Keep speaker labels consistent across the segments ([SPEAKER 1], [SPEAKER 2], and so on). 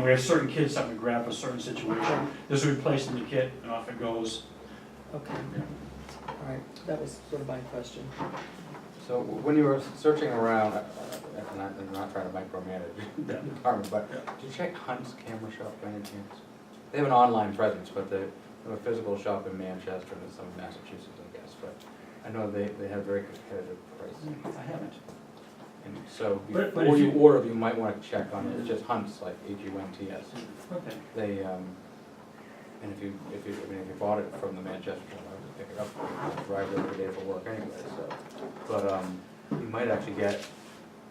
[SPEAKER 1] know, we have certain kits that we grab for certain situation. This would replace the kit and off it goes.
[SPEAKER 2] Okay, all right, that was sort of my question.
[SPEAKER 3] So when you were searching around, uh, and I- I'm not trying to micromanage the department, but did you check Hunt's Camera Shop by any chance? They have an online presence, but they have a physical shop in Manchester and some in Massachusetts, I guess, but I know they, they have very competitive pricing.
[SPEAKER 1] I haven't.
[SPEAKER 3] And so
[SPEAKER 1] But- but
[SPEAKER 3] before
[SPEAKER 1] if
[SPEAKER 3] you
[SPEAKER 1] you-
[SPEAKER 3] order, you might want to check on it, it's just Hunt's, like H-U-N-T-S.
[SPEAKER 1] Okay.
[SPEAKER 3] They, um, and if you, if you, I mean, if you bought it from the Manchester, one, I would pick it up, I'd drive it every day for work anyway, so. But, um, you might actually get,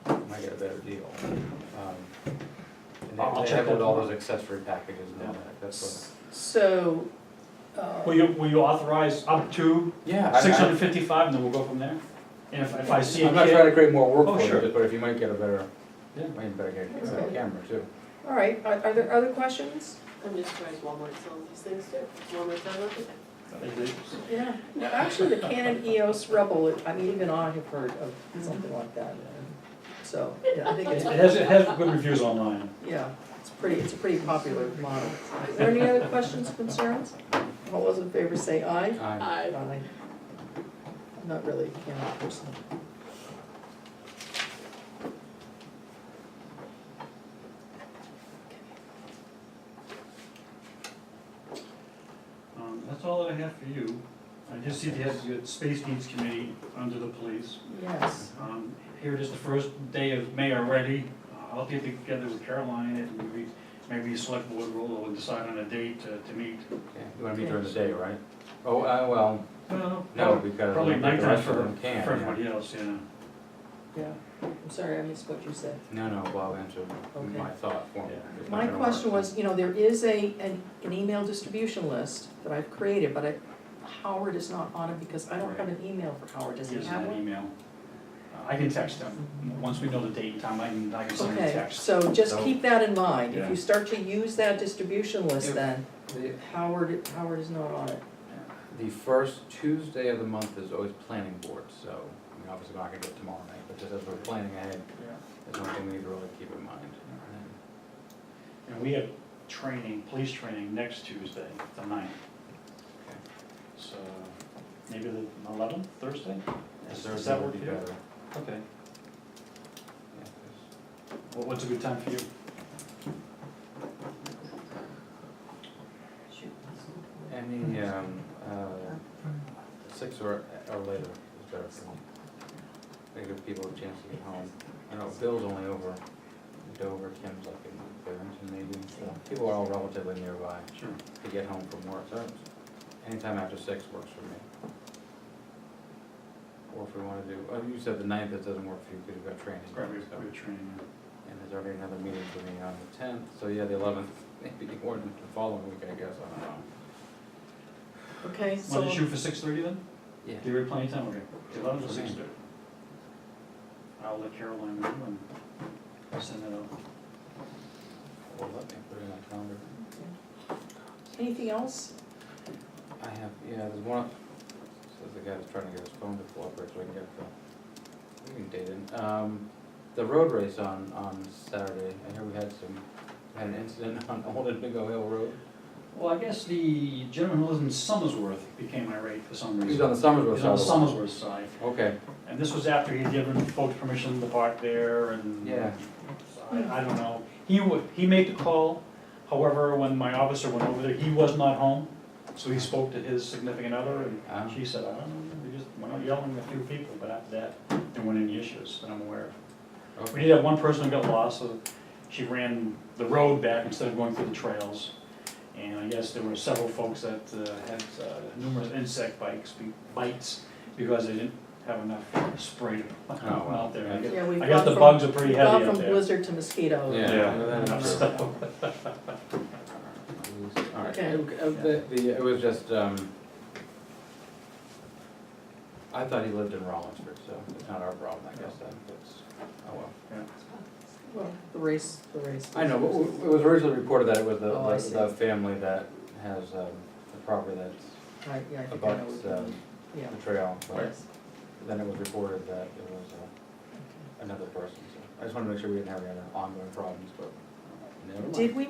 [SPEAKER 3] you might get a better deal. Um, And
[SPEAKER 1] I'll- I'll
[SPEAKER 3] they- they
[SPEAKER 1] check
[SPEAKER 3] have
[SPEAKER 1] that
[SPEAKER 3] all
[SPEAKER 1] tomorrow.
[SPEAKER 3] those accessory packages and all that, that's
[SPEAKER 2] So, uh,
[SPEAKER 1] Will you, will you authorize up to
[SPEAKER 3] what. Yeah. I- I-
[SPEAKER 1] six hundred fifty-five and then we'll go from there? And if, if I see a
[SPEAKER 3] I'm not trying to
[SPEAKER 1] kit,
[SPEAKER 3] create more
[SPEAKER 1] Oh,
[SPEAKER 3] work for
[SPEAKER 1] sure.
[SPEAKER 3] you, but if you might get a better,
[SPEAKER 1] Yeah.
[SPEAKER 3] you might better get a better
[SPEAKER 2] Okay.
[SPEAKER 3] camera too.
[SPEAKER 2] all right, are are there other questions?
[SPEAKER 4] I'm just surprised Walmart sells these things too. Walmart sells everything.
[SPEAKER 2] Yeah. Well, actually, the Canon EOS Rebel, I mean, even I have heard of something like that, so, yeah, I think
[SPEAKER 1] it
[SPEAKER 2] it's,
[SPEAKER 1] has, it has good reviews online.
[SPEAKER 2] yeah, it's pretty, it's a pretty popular model. Is there any other questions, concerns? All those in favor say aye.
[SPEAKER 3] I-
[SPEAKER 4] I,
[SPEAKER 2] Aye. I'm not really a Canon person.
[SPEAKER 1] Um, that's all that I have for you. I just see they have the Space Needs Committee under the police.
[SPEAKER 2] Yes,
[SPEAKER 1] Um, Here it is, the first day of May already. Uh, I'll get together with Caroline and maybe, maybe select board role or decide on a date to, to meet.
[SPEAKER 3] yeah, You wanna meet during the day, right? Oh, uh, well,
[SPEAKER 1] Well,
[SPEAKER 3] no, because
[SPEAKER 1] Probably
[SPEAKER 3] the
[SPEAKER 1] nighttime
[SPEAKER 3] rest of
[SPEAKER 1] for,
[SPEAKER 3] them can't.
[SPEAKER 1] for
[SPEAKER 3] yeah.
[SPEAKER 1] everybody else, yeah.
[SPEAKER 2] yeah, I'm sorry, I missed what you said.
[SPEAKER 3] No, no, Bob answered
[SPEAKER 2] Okay.
[SPEAKER 3] my thought for me.
[SPEAKER 1] Yeah.
[SPEAKER 3] It's not
[SPEAKER 2] My
[SPEAKER 3] gonna
[SPEAKER 2] question
[SPEAKER 3] work.
[SPEAKER 2] was, you know, there is a, an, an email distribution list that I've created, but I, Howard is not on it because I don't have an email for Howard, does he
[SPEAKER 1] Gives
[SPEAKER 2] have
[SPEAKER 1] them an
[SPEAKER 2] one?
[SPEAKER 1] email. Uh, I can text them. Once we know the date and time, I can, I can send them a
[SPEAKER 2] Okay,
[SPEAKER 1] text.
[SPEAKER 2] so just
[SPEAKER 3] No.
[SPEAKER 2] keep that in mind, if
[SPEAKER 1] Yeah.
[SPEAKER 2] you start to use that distribution list
[SPEAKER 3] Yep.
[SPEAKER 2] then,
[SPEAKER 3] The-
[SPEAKER 2] Howard, Howard is not on it.
[SPEAKER 3] The first Tuesday of the month is always planning board, so, I mean, obviously we're not gonna do it tomorrow night, but just as we're planning ahead,
[SPEAKER 1] Yeah.
[SPEAKER 3] it's something we need to really keep in mind.
[SPEAKER 1] And we have training, police training next Tuesday, the ninth.
[SPEAKER 3] Okay.
[SPEAKER 1] So maybe the eleventh, Thursday? Does- does
[SPEAKER 3] Thursday
[SPEAKER 1] that
[SPEAKER 3] would
[SPEAKER 1] work
[SPEAKER 3] be
[SPEAKER 1] for you?
[SPEAKER 3] better.
[SPEAKER 1] Okay.
[SPEAKER 3] Yeah, 'cause-
[SPEAKER 1] Well, What's a good time for you?
[SPEAKER 3] Any, um, uh, six or, or later is better for me. They give people a chance to get home. I know Bill's only over Dover, Kim's like in Barrington maybe, so people are all relatively nearby.
[SPEAKER 1] Sure.
[SPEAKER 3] to get home from work, so anytime after six works for me. Or if we wanna do, oh, you said the ninth, that doesn't work for you, because you've got training.
[SPEAKER 1] Right, we have,
[SPEAKER 3] so-
[SPEAKER 1] we have training.
[SPEAKER 3] And there's already another meeting for me on the tenth, so yeah, the eleventh, maybe more than the following week, I guess, I don't know.
[SPEAKER 2] Okay, so,
[SPEAKER 1] Want to shoot for six thirty then?
[SPEAKER 3] Yeah.
[SPEAKER 1] Do you have plenty of time, okay, eleven to six thirty? I'll let Caroline know and I'll send that out.
[SPEAKER 3] Well, let me put it in my calendar.
[SPEAKER 2] anything else?
[SPEAKER 3] I have, yeah, there's one, says the guy that's trying to get his phone to cooperate, so I can get the, we can date it. Um, the road race on, on Saturday, I hear we had some, had an incident on Old Indigo Hill Road.
[SPEAKER 1] Well, I guess the gentleman who lives in Summersworth became irate for some reason.
[SPEAKER 3] He's on the Somersville
[SPEAKER 1] He's on
[SPEAKER 3] side.
[SPEAKER 1] the Summersworth side,
[SPEAKER 3] Okay,
[SPEAKER 1] and this was after he'd given folks permission to park there and.
[SPEAKER 3] Yeah.
[SPEAKER 1] So I, I don't know, he wa, he made the call, however, when my officer went over there, he was not home, so he spoke to his significant other and
[SPEAKER 3] Ah.
[SPEAKER 1] she said, I don't know, we just went out yelling at a few people, but after that, there weren't any issues that I'm aware of. We
[SPEAKER 3] okay,
[SPEAKER 1] did have one person who got lost, so she ran the road back instead of going through the trails. And I guess there were several folks that uh, had uh, numerous insect bites, bites, because they didn't have enough spray to put
[SPEAKER 3] Oh, wow.
[SPEAKER 1] out there. I guess-
[SPEAKER 2] Yeah, we've
[SPEAKER 1] I guess
[SPEAKER 2] gone
[SPEAKER 1] the
[SPEAKER 2] from-
[SPEAKER 1] bugs are pretty
[SPEAKER 2] we've
[SPEAKER 1] heavy
[SPEAKER 2] Gone
[SPEAKER 1] out
[SPEAKER 2] from
[SPEAKER 1] there.
[SPEAKER 2] blizzard to mosquito.
[SPEAKER 3] Yeah.
[SPEAKER 1] Enough stuff.
[SPEAKER 3] all right.
[SPEAKER 2] Okay.
[SPEAKER 3] Uh, The, the, it was just, um, I thought he lived in Rollinsford, so it's not our problem, I guess, then, that's, oh well.
[SPEAKER 2] Well, the race, the race.
[SPEAKER 3] I know, but it was originally reported that it was
[SPEAKER 2] Oh, I
[SPEAKER 3] the, the the family that has, um, the property that's
[SPEAKER 2] Right, yeah, I think I know
[SPEAKER 3] abuts,
[SPEAKER 2] what you
[SPEAKER 3] um,
[SPEAKER 2] mean. yeah,
[SPEAKER 3] the trail, but
[SPEAKER 2] yes,
[SPEAKER 3] then it was reported that it was, uh,
[SPEAKER 2] okay.
[SPEAKER 3] another person, so. I just wanted to make sure we didn't have any other ongoing problems, but never mind.
[SPEAKER 2] Did we